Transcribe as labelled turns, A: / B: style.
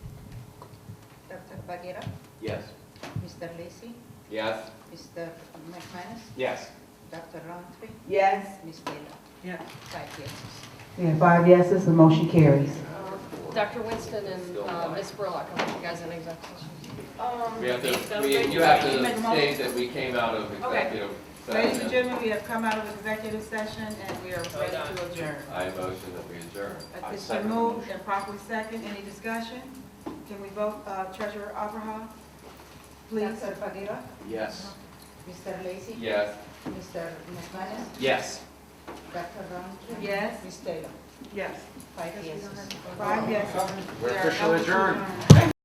A: Baguera,
B: Yes.
A: Mr. Lacy,
B: Yes.
A: Mr. McManus,
B: Yes.
A: Dr. Roundtree,
C: Yes.
A: Ms. Taylor.
C: Yes.
A: Five yeses.
C: And five yeses, the motion carries.
D: Dr. Winston and
B: Still
D: uh,
B: alive.
D: Ms. Burlock, I want you guys in executive session.
B: We have to, we, you have to state that we came out of executive
E: Ladies and
B: session.
E: gentlemen, we have come out of executive session and we are ready to adjourn.
B: I motion that we adjourn.
E: Uh, It's been moved and properly second. Any discussion? Can we vote uh, Treasurer Abraham? Please.
A: Dr. Baguera,
B: Yes.
A: Mr. Lacy,
B: Yes.
A: Mr. McManus,
B: Yes.
A: Dr. Roundtree.
E: Yes.
A: Ms. Taylor.
C: Yes.
A: Five yeses.
E: Five yes.
B: We're
E: We are
B: officially adjourned.